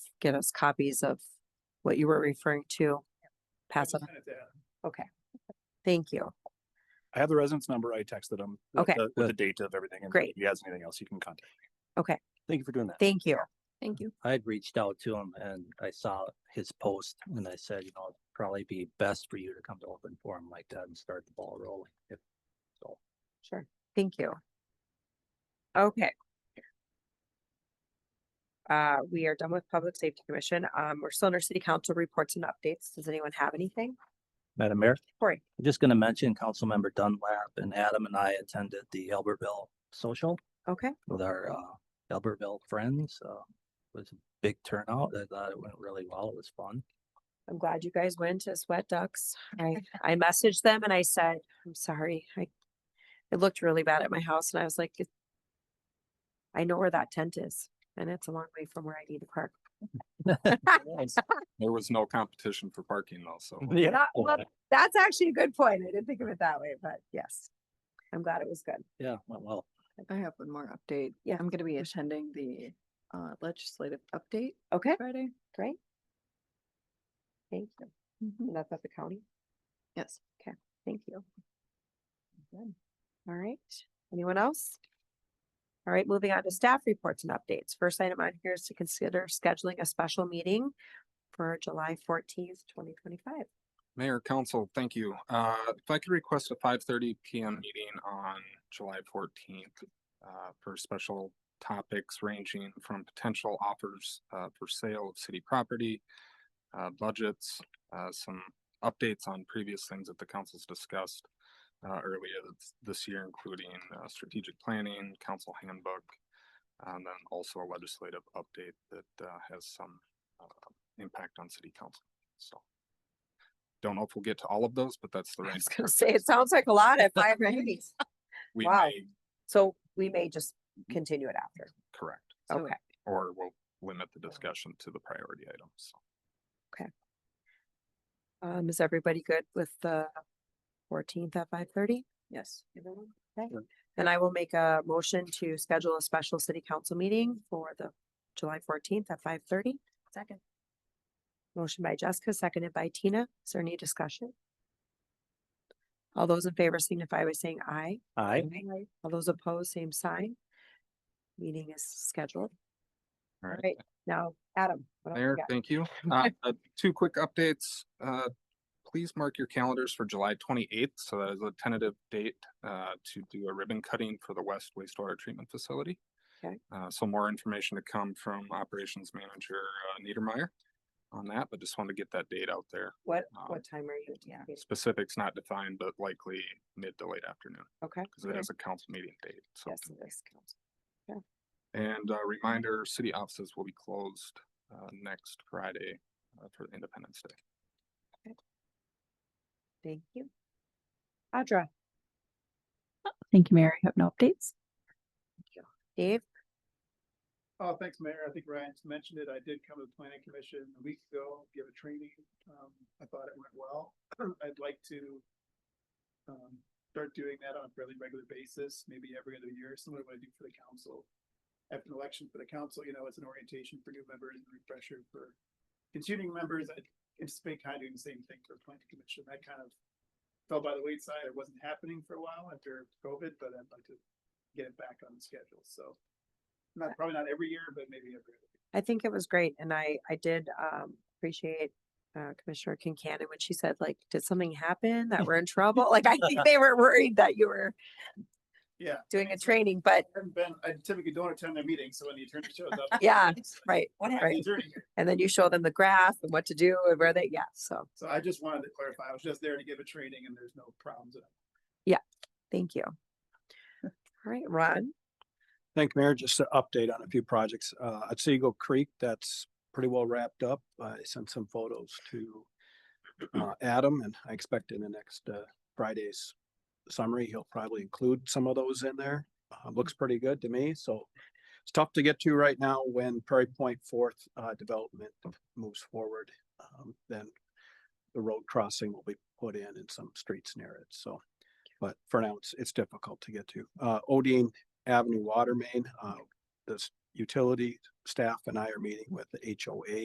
get us copies of what you were referring to. Pass it on. Thank you. I have the resident's number. I texted him. with Okay. the- With the date of everything. and Great. If he has anything else, he can contact. Thank you for doing that. Thank you. Thank you. I had reached out to him and I saw his post and I said, you know, it'd probably be best for you to come to open forum like that and start the ball rolling. If Sure. Thank you. Okay. Uh, we are done with Public Safety Commission. Um, we're still under city council reports and updates. Does anyone have anything? Madam Mayor? Cory. I'm just gonna mention Councilmember Dunlap and Adam and I attended the Albertville Social Okay, with our uh Albertville friends. Uh it was a big turnout. I thought it went really well. It was fun. I'm glad you guys went to Sweat Ducks. I, I messaged them and I said, I'm sorry, I, it looked really bad at my house and I was like, "It- I know where that tent is and it's a long way from where I need to park. There was no competition for parking though, so. Not- well, That's actually a good point. I didn't think of it that way, but yes. I'm glad it was good. Yeah, went well. I have one more update. Yeah. I'm gonna be attending the uh legislative update Okay, Friday. great. Thank you. Mm-hmm. And that's at the county. Yes. Thank you. Good. All right, anyone else? All right, moving on to staff reports and updates. First item on here is to consider scheduling a special meeting for July fourteenth, twenty twenty-five. Mayor, council, thank you. Uh, if I could request a five thirty PM meeting on July fourteenth. Uh, for special topics ranging from potential offers, uh, for sale of city property. Uh, budgets, uh, some updates on previous things that the council's discussed. Uh, earlier this- this year, including, uh, strategic planning, council handbook. And then also a legislative update that, uh, has some, uh, impact on city council, so. Don't know if we'll get to all of those, but that's the I range. was of gonna our say, it things. sounds like a lot at five meetings. We wow. may, So we may just continue it after. correct, So- Okay, or we'll limit the discussion to the priority items. so. um, is everybody good with the fourteenth at five thirty? Yes. Okay, then I will make a motion to schedule a special city council meeting for the July fourteenth at five thirty. Second. Motion by Jessica, seconded by Tina. Is there any discussion? All those in favor signify by saying aye. Aye. All those opposed, same sign. Meeting is scheduled. All All right. right, now, Adam. what else we Mayor, got? thank you. Uh, uh, two quick updates. Uh, please mark your calendars for July twenty-eighth, so that is a tentative date, uh, to do a ribbon cutting for the West wastewater treatment facility. Okay. Uh, so more information to come from Operations Manager uh, Niedermeyer on that, but just wanted to get that date out there. What, um, what time are you? yeah. anticipating? Specifics not defined, but likely mid to late afternoon, Okay. because it okay. is a council meeting date, so. Yes, it is council. And a reminder, city offices will be closed, uh, next Friday, uh, for Independence Day. Thank you. Audra, Thank you, Mayor. I have no updates. Dave, Oh, thanks, Mayor. I think Ryan's mentioned it. I did come to the planning commission a week ago, give a training. Um, I thought it went well. I'd like to um, start doing that on a fairly regular basis, maybe every other year, similar to what I do for the council. After an election for the council, you know, it's an orientation for new members and refresher for continuing members. I anticipate kind of doing the same thing for planning commission. That kind of fell by the wayside. It wasn't happening for a while after COVID, but I'd like to get it back on schedule. So not probably not every year, but maybe every other. I think it was great and I, I did, um, appreciate uh, Commissioner Kincannon when she said like, did something happen that we're in trouble? Like, I think they were worried that you were year. Yeah. doing a training, but I haven't been, I typically don't attend their meetings, so when the attorney shows up. Yeah, it's like, right, What right. happened during here? And then you show them the graph and what to do and where they, yeah, so, So I just wanted to clarify, I was just there to give a training and there's no problems. at all. thank you. All right, Ron, Thank you, Mayor. Just an update on a few projects. Uh, at Seagull Creek, that's pretty well wrapped up. I sent some photos to uh, Adam and I expect in the next uh, Friday's summary, he'll probably include some of those in there. Uh, looks pretty good to me, so it's tough to get to right now when Prairie Point Fourth uh, development moves forward. Um, Then the road crossing will be put in and some streets near it, so. But for now, it's, it's difficult to get to. Uh, Odine Avenue Water Main. Uh, this utility staff and I are meeting with the HOA